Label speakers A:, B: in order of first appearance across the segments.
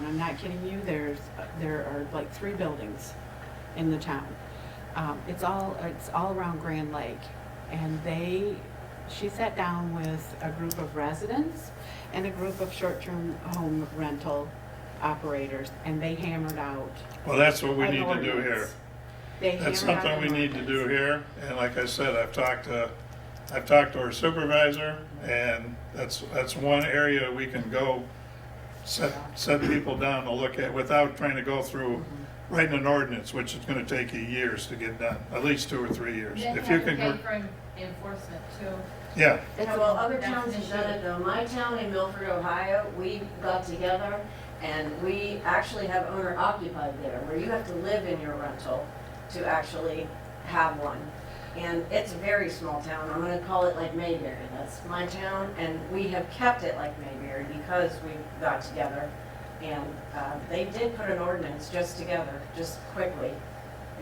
A: not kidding you, there's, there are like three buildings in the town. Um, it's all, it's all around Grand Lake. And they, she sat down with a group of residents and a group of short-term home rental operators, and they hammered out.
B: Well, that's what we
A: an
B: need to do
A: ordinance.
B: here.
A: They
B: That's
A: hammered out
B: something we
A: an
B: need to do
A: ordinance.
B: here, and like I said, I've talked to, I've talked to our supervisor, and that's, that's one area we can go set, set people down to look at without trying to go through
C: Mm-hmm.
B: writing an ordinance, which is gonna take you years to get done, at least two or three years.
D: Then you
B: If you
D: have to
B: can,
D: pay
B: gr-
D: for en- enforcement too.
B: yeah,
A: That's
C: Yeah,
A: a-
C: well, other
D: that's
C: towns
D: an
C: have done
D: issue.
C: it, though. My town in Milford, Ohio, we got together and we actually have owner occupied there, where you have to live in your rental to actually have one. And it's a very small town. I'm gonna call it like Mayberry. That's my town, and we have kept it like Mayberry because we got together. And, uh, they did put an ordinance just together, just quickly.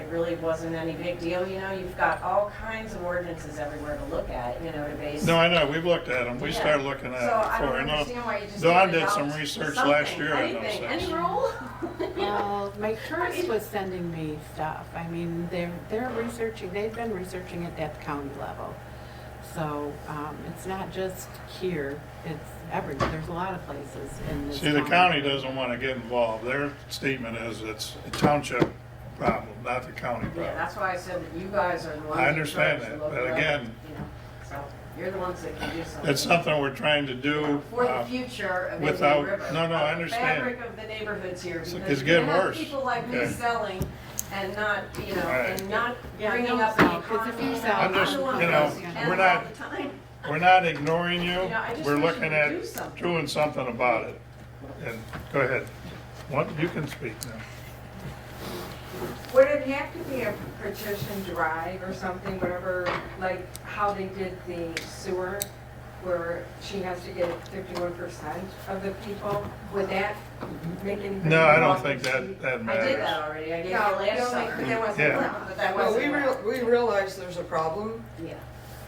C: It really wasn't any big deal, you know? You've got all kinds of ordinances everywhere to look at, you know, to base.
B: no, I know, we've looked at them, we
C: Yeah.
B: started looking at
C: So
B: them
C: I don't
B: before, I know.
C: understand why you just.
B: Dawn
C: can't
B: did some
C: adopt
B: research last
C: something,
B: year on those
C: anything,
B: things.
C: Any rule?
A: Well, my tourist was sending me stuff. I mean, they're, they're researching, they've been researching it at the county level. So, um, it's not just here, it's everywhere. There's a lot of places in this
B: See, the county doesn't want to get involved. Their statement is it's a township problem, not the county
C: Yeah,
B: problem.
C: that's why I said that you guys are the ones.
B: I
C: in
B: understand
C: charge to
B: that,
C: look
B: but
C: it up,
B: again-
C: you know, So you're the ones that can do something.
B: It's something we're trying to do.
C: For the
B: um,
C: future of
B: without-
C: Indian River.
B: no, no, I
C: of the
B: understand.
C: Fabric of the neighborhoods here.
B: It's-
C: because
B: it's
C: you
B: getting
C: have
B: worse.
C: People like me
B: Okay.
C: selling and not, you know,
B: Right.
C: and not
A: Yeah,
C: bringing
A: don't
C: up the
A: sell, 'cause if you
C: economy.
A: sell-
B: I'm just-
C: the one
B: you
C: who
B: know,
C: goes to
A: we're
C: Canada
B: not-
C: all the time.
B: We're not ignoring you.
C: You know, I just
B: We're
C: wish you
B: looking
C: would do
B: at
C: something.
B: doing something about it. And, go ahead. What, you can speak now.
E: Would it have to be a petition drive or something, whatever, like how they did the sewer, where she has to get fifty-one percent of the people? Would that make anything?
B: No, I don't think that, that
C: I did
B: matters.
C: that already. I
E: No,
C: gave you
E: you
C: last
E: don't make-
C: summer.
E: that wasn't
B: Yeah.
E: allowed.
C: But that
F: Well,
C: wasn't.
F: we real, we realize there's a problem,
C: Yeah.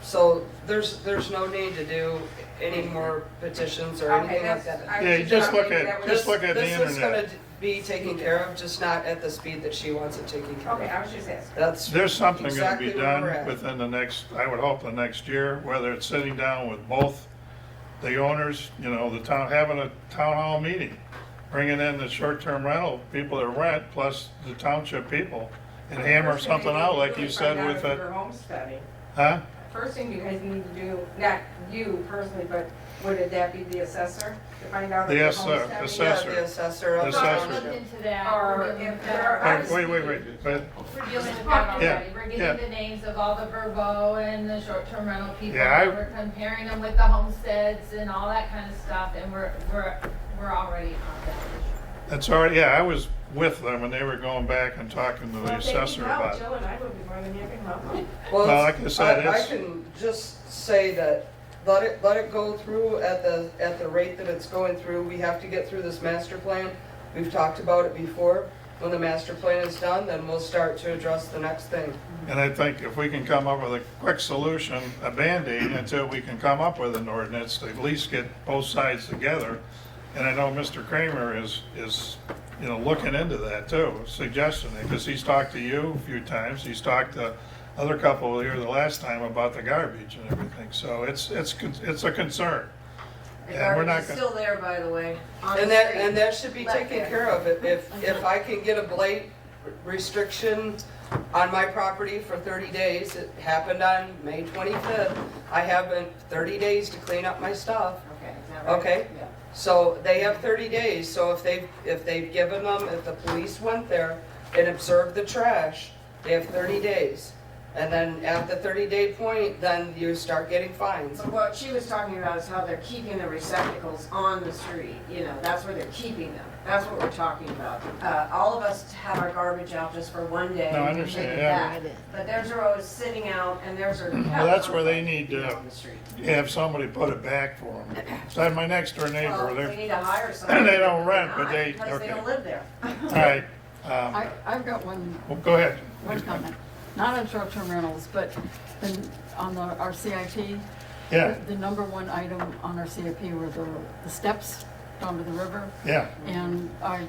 F: so there's, there's no need to do any more petitions or
E: Mm-hmm. Okay,
F: anything like
E: that's,
F: that.
E: I
B: Yeah,
E: was
B: you
E: just
B: just look
E: wondering
B: at-
E: if that was-
B: Just look at the
F: This is gonna
B: internet.
F: be taken care of, just not at the speed that she wants it taken care
E: Okay,
F: of.
E: I was just asking.
F: That's.
B: There's something going to
F: exactly
B: be
F: where we're
B: done
F: at.
B: within the next, I would hope the next year, whether it's sitting down with both the owners, you know, the town, having a town hall meeting, bringing in the short-term rental people that rent, plus the township people, and hammer
E: First thing
B: something
E: you
B: out
E: need
B: like
E: to
B: you
E: do is
B: said
E: find out
B: with
E: if
B: the,
E: you're homesteading.
B: huh?
E: First thing you guys need to do, not you personally, but would it that be the assessor to find out?
B: The
E: if you're
B: assessor,
E: homesteading?
B: assessor.
F: Yeah, the assessor. of the
B: Assessor.
D: Looked
F: township.
D: into that.
E: Or
D: We're dealing
E: if
D: with
E: there
D: that.
E: are-
B: Wait, wait, wait, wait, but,
D: We're dealing with that
B: Yeah,
D: already. We're
B: yeah.
D: getting the names of all the Verbo and the short-term rental people.
B: Yeah, I-
D: We're comparing them with the homesteads and all that kind of stuff, and we're, we're, we're already on that issue.
B: that's all right, yeah, I was with them when they were going back and talking to the
E: Well, thank you,
B: assessor
E: Mel.
B: about it.
E: Jill and I would be more than happy to help them.
B: Well,
F: it's-
B: like I said, it's-
F: I can just say that, let it, let it go through at the, at the rate that it's going through. We have to get through this master plan. We've talked about it before. When the master plan is done, then we'll start to address the next thing.
B: And I think if we can come up with a quick solution, a Band-Aid, until we can come up with an ordinance to at least get both sides together. And I know Mr. Kramer is, is, you know, looking into that too, suggesting it, because he's talked to you a few times. He's talked to other couple here the last time about the garbage and everything. So it's, it's, con- it's a concern.
C: The
B: And we're
C: garbage
B: not
C: is
B: gonna-
C: still there, by the way. on
F: And
C: the
F: that,
C: street. Mm-hmm.
F: and that should be
C: Let
F: taken
C: it.
F: care of. If- If, if I can get a blight restriction on my property for 30 days, it happened on May 25th, I have been 30 days to clean up my stuff.
C: Okay, is that right?
F: Okay.
C: Yeah.
F: So they have 30 days, so if they've, if they've given them, if the police went there and observed the trash, they have 30 days. And then at the 30-day point, then you start getting fines.
C: So what she was talking about is how they're keeping the receptacles on the street, you know, that's where they're keeping them. That's what we're talking about. Uh, all of us have our garbage out just for one day.
B: No, I
C: and then
B: understand,
C: take it
B: yeah.
C: back. But theirs are always sitting out and theirs are.
B: Well, that's where they need to-
C: On the street.
B: Have somebody put it back for them. So I had my next door neighbor,
C: Well,
B: they're,
C: we need to hire somebody.
B: They don't rent, but
C: Not,
B: they-
C: Because
B: okay.
C: they don't live there.
B: all right.
G: I,
B: um,
G: I've got one,
B: well, Go ahead.
G: one comment, not on short-term rentals, but the- on the, our CIP.
B: Yeah,
G: The number one item on our CIP were the, the steps down to the river,
B: yeah.
G: and I